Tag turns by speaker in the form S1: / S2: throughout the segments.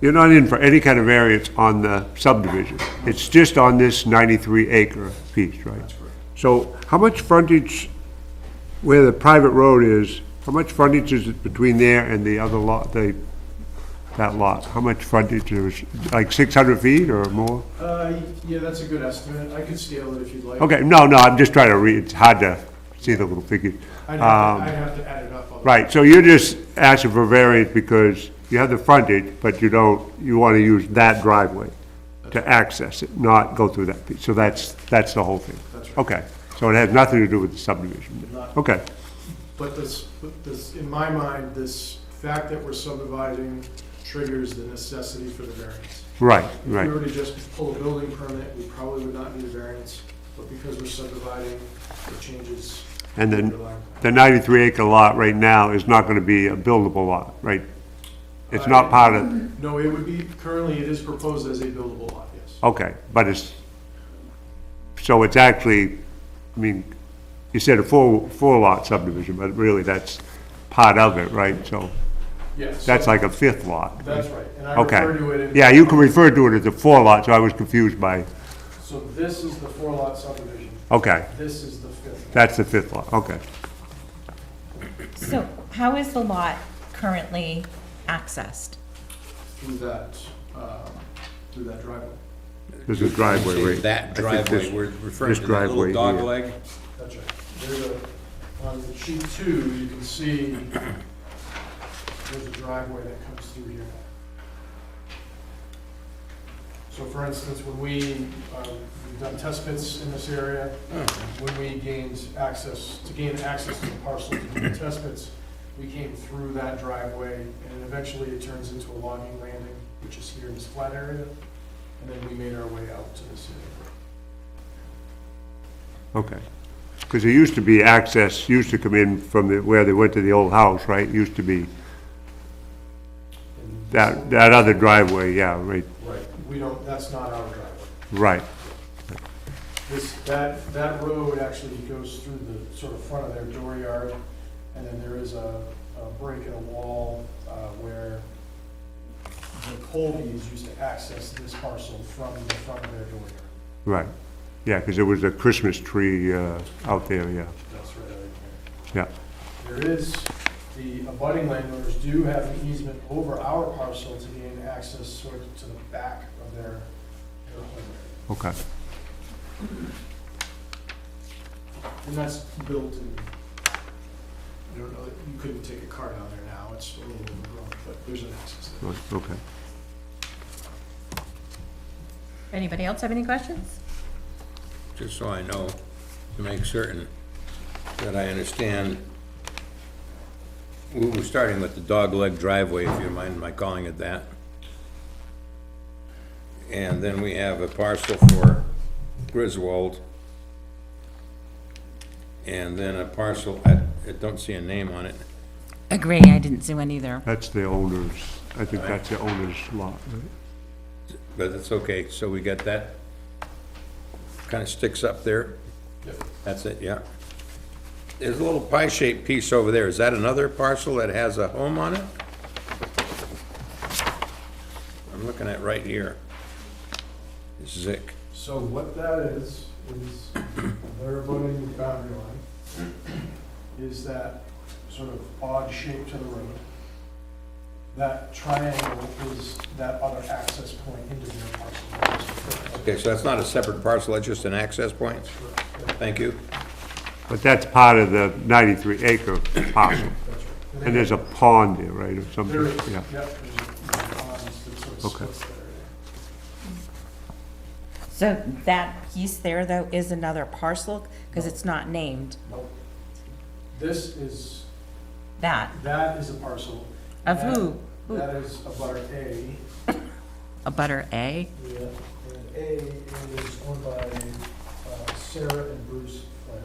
S1: You're not in for any kind of variance on the subdivision. It's just on this 93 acre piece, right? That's correct. So how much frontage, where the private road is, how much frontage is it between there and the other lot, the, that lot? How much frontage is, like 600 feet or more?
S2: Uh, yeah, that's a good estimate. I could scale it if you'd like.
S1: Okay, no, no, I'm just trying to read, it's hard to see the little figures.
S2: I'd have to, I'd have to add it up. otherwise.
S1: Um, Right, so you're just asking for variance because you have the frontage, but you don't, you want to use that driveway to access it, not go through that piece. So that's, that's the whole thing?
S2: That's right.
S1: Okay, so it has nothing to do with the subdivision? then?
S2: Not-
S1: Okay,
S2: But this, but this, in my mind, this fact that we're subdividing triggers the necessity for the variance.
S1: right,
S2: If we
S1: right,
S2: were to just pull a building permit, we probably would not need a variance, but because we're subdividing, it changes.
S1: And
S2: the
S1: then-
S2: underlying-
S1: The 93 acre lot right now is not going to be a buildable lot, right? It's not part of,
S2: No, it would be, currently it is proposed as a buildable lot, yes.
S1: okay, but it's, so it's actually, I mean, you said a four, four lot subdivision, but really that's part of it, right? So
S2: Yes.
S1: That's like a fifth lot.
S2: That's right, and I
S1: Okay.
S2: refer to it in.
S1: Yeah, you can refer to it as a four lot, so I was confused by,
S2: So this is the four lot subdivision,
S1: okay,
S2: this is the fifth.
S1: that's the fifth lot, okay.
S3: So how is the lot currently accessed?
S2: through that, um, through that driveway.
S1: There's a driveway, right?
S4: That
S1: I think
S4: driveway,
S1: this-
S4: we're referring
S1: this
S4: to that
S1: driveway
S4: little dog
S1: here.
S4: leg?
S2: That's right. There's a, on the sheet two, you can see there's a driveway that comes through here. So for instance, when we, um, we've done test pits in this area, when we gained access, to gain access to the parcel to do the test pits, we came through that driveway, and eventually it turns into a logging landing, which is here in this flat area, and then we made our way out to this area.
S1: Okay. Because there used to be access, used to come in from the, where they went to the old house, right? Used to be
S2: And
S1: that, that other driveway, yeah, right,
S2: Right, we don't, that's not our driveway.
S1: right.
S2: This, that, that road actually goes through the sort of front of their dooryard, and then there is a, a break in a wall uh, where the Colbys used to access this parcel from the front of their dooryard.
S1: Right, yeah, because there was a Christmas tree uh, out there, yeah,
S2: That's right. out
S1: yeah,
S2: there. There is, the abutting landowners do have an easement over our parcel to gain access sort of to the back of their, their home area.
S1: okay.
S2: And that's built in, I don't know, you couldn't take a car down there now, it's a little overgrown, but there's an access there.
S1: Right, Okay.
S3: Anybody else have any questions?
S4: Just so I know, to make certain that I understand. We were starting with the dog leg driveway, if you mind my calling it that. And then we have a parcel for Griswold. And then a parcel, I, I don't see a name on it.
S3: Agree, I didn't see one either.
S1: That's the owner's, I think that's the owner's lot, right?
S4: But it's okay, so we got that. Kind of sticks up there. That's it, yeah. There's a little pie-shaped piece over there. Is that another parcel that has a home on it? I'm looking at right here. Zick.
S2: So what that is, is they're abutting the boundary line, is that sort of odd shape to the road. That triangle is that other access point into their parcel.
S4: Okay, so that's not a separate parcel, that's just an access point? Thank you.
S1: But that's part of the 93 acre parcel.
S2: That's right.
S1: And there's a pond there, right, or something?
S2: There is,
S1: Yeah.
S2: yep, there's a pond that sort of
S1: Okay.
S2: splits that area.
S3: So that piece there, though, is another parcel, because it's not named,
S2: Nope. This is
S3: that,
S2: That is a parcel.
S3: of who? Who?
S2: That is a butter A.
S3: A butter A?
S2: Yeah, and A is owned by Sarah and Bruce Flair.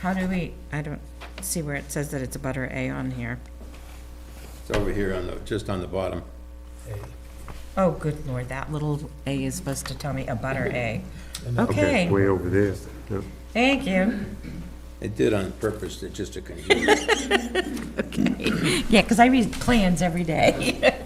S3: How do we, I don't see where it says that it's a butter A on here.
S4: It's over here on the, just on the bottom.
S3: Oh, good lord, that little A is supposed to tell me a butter A. Okay,
S1: Way over there, yeah.
S3: thank you.
S4: It did on purpose, it's just a confusion.
S3: Yeah, because I read plans every day.